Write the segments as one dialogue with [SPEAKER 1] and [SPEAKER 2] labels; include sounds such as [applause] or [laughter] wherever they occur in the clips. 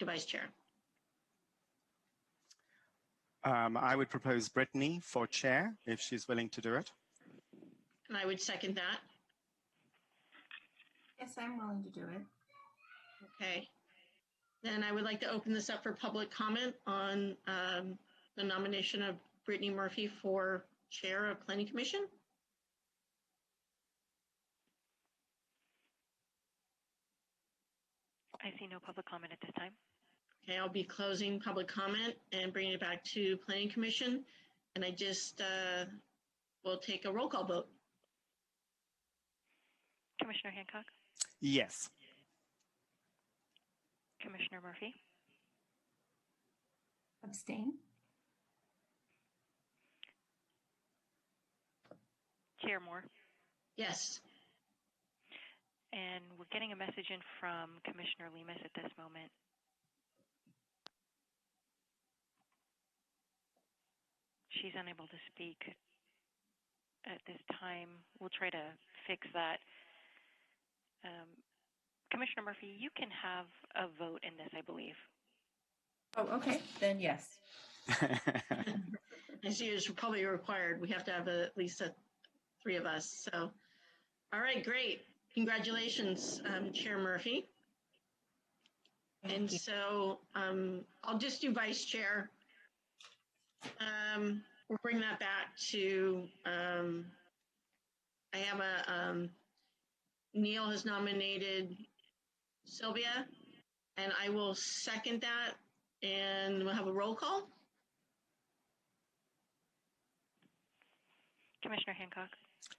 [SPEAKER 1] to Vice Chair.
[SPEAKER 2] Um, I would propose Brittany for chair if she's willing to do it.
[SPEAKER 1] And I would second that.
[SPEAKER 3] Yes, I'm willing to do it.
[SPEAKER 1] Okay. Then I would like to open this up for public comment on um, the nomination of Brittany Murphy for Chair of Planning Commission.
[SPEAKER 4] I see no public comment at this time.
[SPEAKER 1] Okay, I'll be closing public comment and bringing it back to Planning Commission. And I just uh, will take a roll call vote.
[SPEAKER 4] Commissioner Hancock,
[SPEAKER 2] Yes.
[SPEAKER 3] [laughs]
[SPEAKER 4] Commissioner Murphy,
[SPEAKER 3] Abstain?
[SPEAKER 4] Chair Moore,
[SPEAKER 1] Yes.
[SPEAKER 4] and we're getting a message in from Commissioner Lemus at this moment. She's unable to speak at this time. We'll try to fix that. Um, Commissioner Murphy, you can have a vote in this, I believe.
[SPEAKER 3] Oh, okay, then yes.
[SPEAKER 1] As you is probably required, we have to have a- at least a- three of us. So, all right, great. Congratulations, um, Chair Murphy. And so um, I'll just do vice chair. Um, We'll bring that back to, um, I have a, um, Neil has nominated Sylvia, and I will second that, and we'll have a roll call.
[SPEAKER 4] Commissioner Hancock,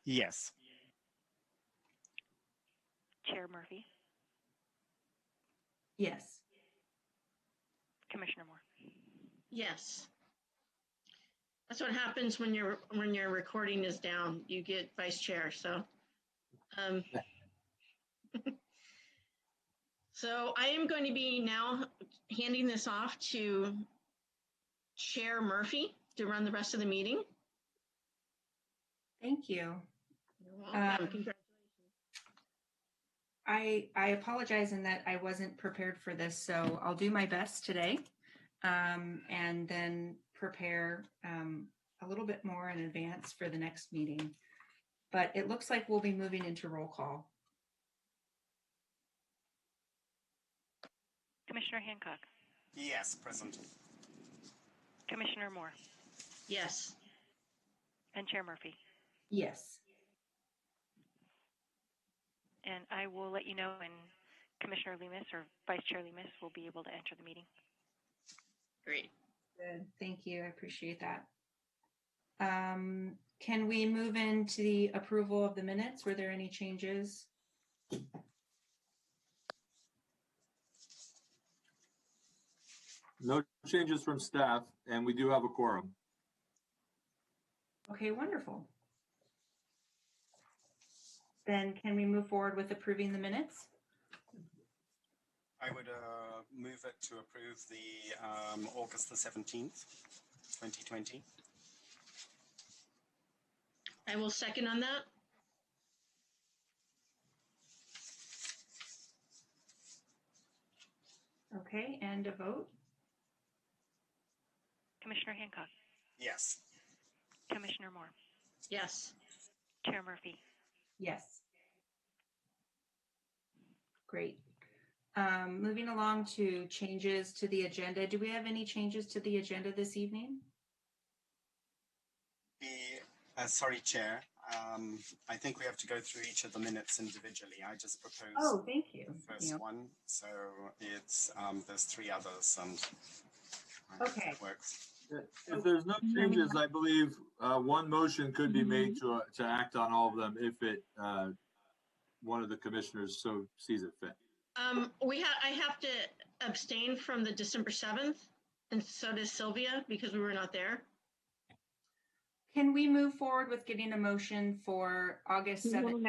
[SPEAKER 2] yes.
[SPEAKER 4] Chair Murphy,
[SPEAKER 3] Yes.
[SPEAKER 4] Commissioner Moore.
[SPEAKER 1] Yes. That's what happens when your, when your recording is down, you get vice chair, so. um, [laughs] So I am going to be now handing this off to Chair Murphy to run the rest of the meeting.
[SPEAKER 3] Thank you.
[SPEAKER 1] You're welcome.
[SPEAKER 3] Um,
[SPEAKER 1] Congratulations.
[SPEAKER 3] I, I apologize in that I wasn't prepared for this, so I'll do my best today. Um, and then prepare, um, a little bit more in advance for the next meeting. But it looks like we'll be moving into roll call.
[SPEAKER 4] Commissioner Hancock,
[SPEAKER 2] Yes, present.
[SPEAKER 4] Commissioner Moore,
[SPEAKER 1] Yes,
[SPEAKER 4] and Chair Murphy.
[SPEAKER 3] Yes.
[SPEAKER 4] And I will let you know when Commissioner Lemus or Vice Chair Lemus will be able to enter the meeting.
[SPEAKER 1] great.
[SPEAKER 3] Good. Thank you. I appreciate that. Um, can we move into the approval of the minutes? Were there any changes?
[SPEAKER 5] No changes from staff, and we do have a quorum.
[SPEAKER 3] Okay, wonderful. Then can we move forward with approving the minutes?
[SPEAKER 2] I would uh, move it to approve the um, August the 17th, 2020.
[SPEAKER 1] I will second on that.
[SPEAKER 3] Okay, and a vote?
[SPEAKER 4] Commissioner Hancock,
[SPEAKER 2] Yes.
[SPEAKER 4] Commissioner Moore,
[SPEAKER 1] Yes,
[SPEAKER 4] Chair Murphy,
[SPEAKER 3] Yes. Great. Um, moving along to changes to the agenda. Do we have any changes to the agenda this evening?
[SPEAKER 2] The- uh, sorry, Chair. Um, I think we have to go through each of the minutes individually. I just proposed
[SPEAKER 3] Oh, thank you.
[SPEAKER 2] the first
[SPEAKER 3] Neil.
[SPEAKER 2] one. So it's um, there's three others, and I hope
[SPEAKER 3] Okay.
[SPEAKER 2] that works.
[SPEAKER 5] If there's no changes, I believe uh, one motion could be made to, uh, to act on all of them if it, uh, one of the commissioners so sees it fit.
[SPEAKER 1] um, we have, I have to abstain from the December 7th, and so does Sylvia, because we were not there.
[SPEAKER 3] Can we move forward with getting a motion for August seventh,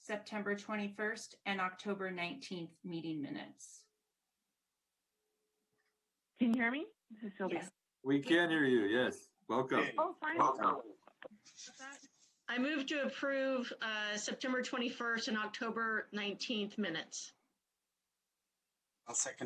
[SPEAKER 3] September twenty-first, and October nineteenth meeting minutes?
[SPEAKER 6] Can you hear me? This is Sylvia.
[SPEAKER 3] Yes.
[SPEAKER 5] We can hear you, yes. Welcome.
[SPEAKER 6] Oh, fine.
[SPEAKER 5] Welcome.
[SPEAKER 1] I move to approve uh, September 21st and October 19th minutes.
[SPEAKER 2] I'll second